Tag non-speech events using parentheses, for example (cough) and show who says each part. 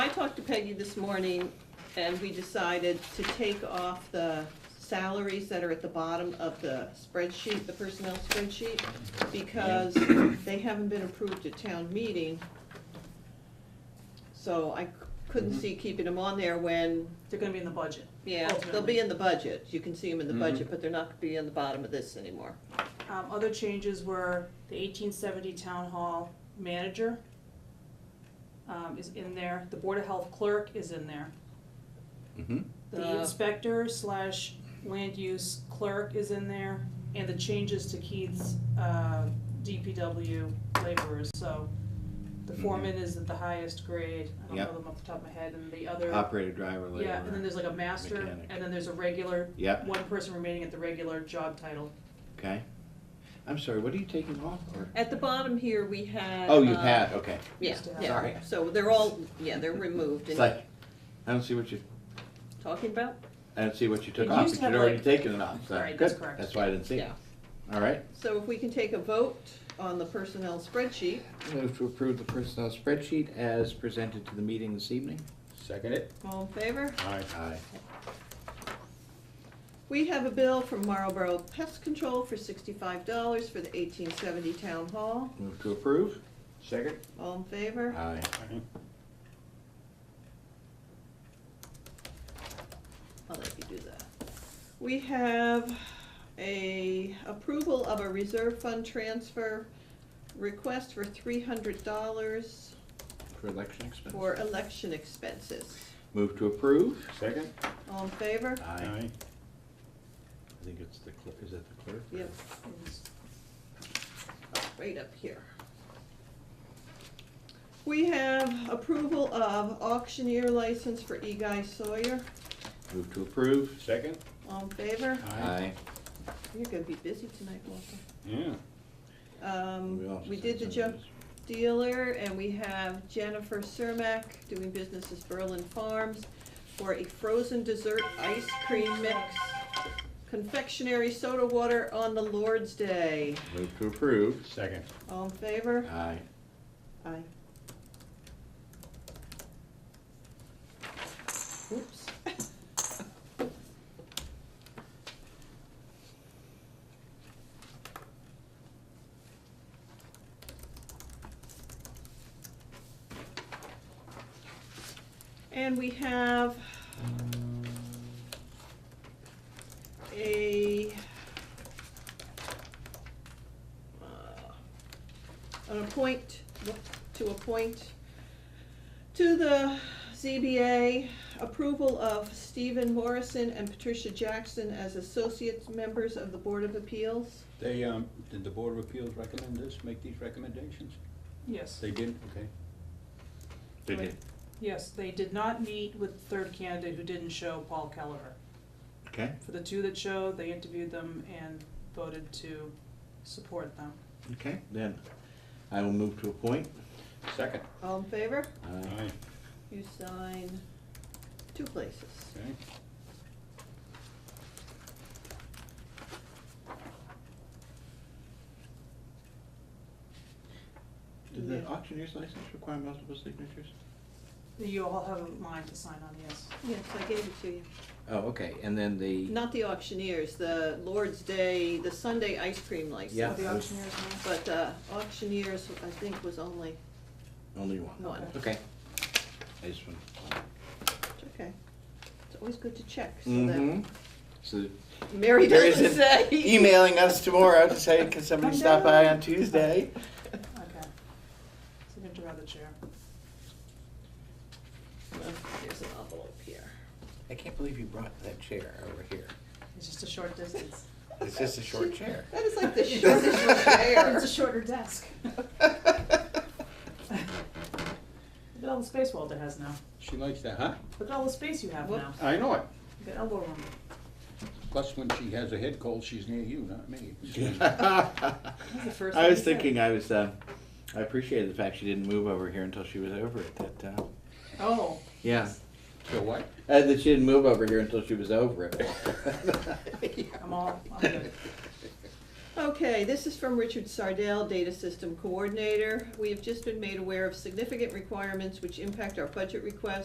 Speaker 1: talked to Peggy this morning, and we decided to take off the salaries that are at the bottom of the spreadsheet, the personnel spreadsheet, because they haven't been approved at town meeting. So I c- couldn't see keeping them on there when,
Speaker 2: They're gonna be in the budget.
Speaker 1: yeah, they'll
Speaker 2: ultimately.
Speaker 1: be in the budget, you can see them in
Speaker 3: Mm-hmm.
Speaker 1: the budget, but they're not gonna be on the bottom of this anymore.
Speaker 2: Um, other changes were the eighteen seventy town hall manager um, is in there, the board of health clerk is in there.
Speaker 3: Mhm.
Speaker 2: The
Speaker 1: The-
Speaker 2: inspector slash land use clerk is in there, and the changes to Keith's, uh, DPW laborers, so the foreman is at the highest grade, I don't
Speaker 3: Mm-hmm. Yep.
Speaker 2: know them off the top of my head, and the other,
Speaker 3: Operator, driver, laborer.
Speaker 2: yeah, and then there's like a master,
Speaker 3: mechanic.
Speaker 2: and then there's a regular,
Speaker 3: Yep,
Speaker 2: one person remaining at the regular job title.
Speaker 3: okay. I'm sorry, what are you taking off or?
Speaker 1: At the bottom here, we had.
Speaker 3: Oh, you
Speaker 1: uh,
Speaker 3: had, okay.
Speaker 1: Yeah,
Speaker 2: Used to have.
Speaker 1: yeah,
Speaker 3: Sorry.
Speaker 1: so they're all, yeah, they're removed,
Speaker 3: It's
Speaker 1: and
Speaker 3: like, I don't see what you,
Speaker 1: talking about,
Speaker 3: I don't see what you took
Speaker 2: It
Speaker 3: off,
Speaker 2: used
Speaker 3: but
Speaker 2: to
Speaker 3: you'd
Speaker 2: have,
Speaker 3: already
Speaker 2: like-
Speaker 3: taken it off, so.
Speaker 2: All right, that's
Speaker 3: good.
Speaker 2: correct.
Speaker 3: That's why I didn't see it.
Speaker 1: yeah.
Speaker 3: All right.
Speaker 1: So if we can take a vote on the personnel spreadsheet,
Speaker 3: Move to approve the personnel spreadsheet as presented to the meeting this evening.
Speaker 4: Second it?
Speaker 1: all in favor?
Speaker 4: Aye.
Speaker 3: Aye.
Speaker 1: We have a bill from Marlboro Pest Control for sixty-five dollars for the eighteen seventy town hall,
Speaker 3: Move to approve.
Speaker 4: Second?
Speaker 1: all in favor?
Speaker 3: Aye.
Speaker 1: I'll let you do that. We have a approval of a reserve fund transfer request for three hundred dollars
Speaker 3: For election expense.
Speaker 1: for election expenses,
Speaker 3: Move to approve.
Speaker 4: Second?
Speaker 1: all in favor?
Speaker 3: Aye. I think it's the clerk, is it the clerk?
Speaker 1: Yep. right up here. We have approval of auctioneer license for E. Guy Sawyer.
Speaker 3: Move to approve.
Speaker 4: Second?
Speaker 1: All in favor?
Speaker 3: Aye.
Speaker 1: You're gonna be busy tonight, Walter.
Speaker 4: Yeah.
Speaker 3: We
Speaker 1: Um,
Speaker 3: also
Speaker 1: we
Speaker 3: said
Speaker 1: did the
Speaker 3: some
Speaker 1: junk
Speaker 3: of these.
Speaker 1: dealer, and we have Jennifer Cermak doing business as Berlin Farms for a frozen dessert ice cream mix, confectionery soda water on the Lord's Day.
Speaker 3: Move to approve.
Speaker 4: Second.
Speaker 1: All in favor?
Speaker 3: Aye.
Speaker 1: Aye. Oops. And we have a uh, an appoint, to appoint to the ZBA, approval of Stephen Morrison and Patricia Jackson as associate members of the Board of Appeals.
Speaker 4: They, um, did the Board of Appeals recommend this, make these recommendations?
Speaker 2: Yes,
Speaker 4: They did, okay.
Speaker 3: They did.
Speaker 2: yes, they did not meet with the third candidate who didn't show, Paul Kelleher.
Speaker 3: Okay,
Speaker 2: For the two that showed, they interviewed them and voted to support them.
Speaker 3: okay, then I will move to appoint. uh,
Speaker 4: Second?
Speaker 1: All in favor?
Speaker 3: Aye.
Speaker 1: You sign two places.
Speaker 4: Okay.
Speaker 3: Did the
Speaker 1: Yeah.
Speaker 3: auctioneer's license require multiple signatures?
Speaker 2: You all have a line to sign on, yes.
Speaker 1: Yes, I gave it to you.
Speaker 3: Oh, okay, and then the,
Speaker 1: Not the auctioneers, the Lord's Day, the Sunday ice cream license.
Speaker 3: Yeah.
Speaker 2: Oh, The auctioneer's line.
Speaker 1: But uh, auctioneers, I think, was only
Speaker 3: only one.
Speaker 1: one.
Speaker 3: Okay. I just want.
Speaker 1: It's Okay. It's always good to check so that
Speaker 3: Mm-hmm. So
Speaker 1: Mary
Speaker 3: There
Speaker 1: doesn't
Speaker 3: isn't
Speaker 1: say.
Speaker 3: emailing us tomorrow to say, can somebody stop by on Tuesday?
Speaker 2: Okay. Signature by the chair.
Speaker 1: Well, Oh, There's an envelope here.
Speaker 3: I can't believe you brought that chair over here.
Speaker 2: It's just a short
Speaker 1: (laughs)
Speaker 2: distance.
Speaker 3: It's just a short chair.
Speaker 1: That is like the shortest
Speaker 2: (laughs) It's a
Speaker 1: chair.
Speaker 2: shorter desk. Look at all the space Walter has now.
Speaker 4: She likes that, huh?
Speaker 2: Look at all the space you have
Speaker 1: Whoop.
Speaker 2: now.
Speaker 4: I know it.
Speaker 2: Look at elbow room.
Speaker 4: Plus, when she has a head cold, she's near you, not me.
Speaker 2: That's the
Speaker 3: (laughs)
Speaker 2: first
Speaker 3: I
Speaker 2: thing
Speaker 3: was
Speaker 2: he said.
Speaker 3: thinking, I was, uh, I appreciated the fact she didn't move over here until she was over it, that, uh,
Speaker 2: Oh,
Speaker 3: yeah.
Speaker 4: So what?
Speaker 3: Uh, that she didn't move over here until she was over it. (laughs)
Speaker 2: I'm all, I'm good.
Speaker 1: (laughs) Okay, this is from Richard Sardell, Data System Coordinator. We have just been made aware of significant requirements which impact our budget request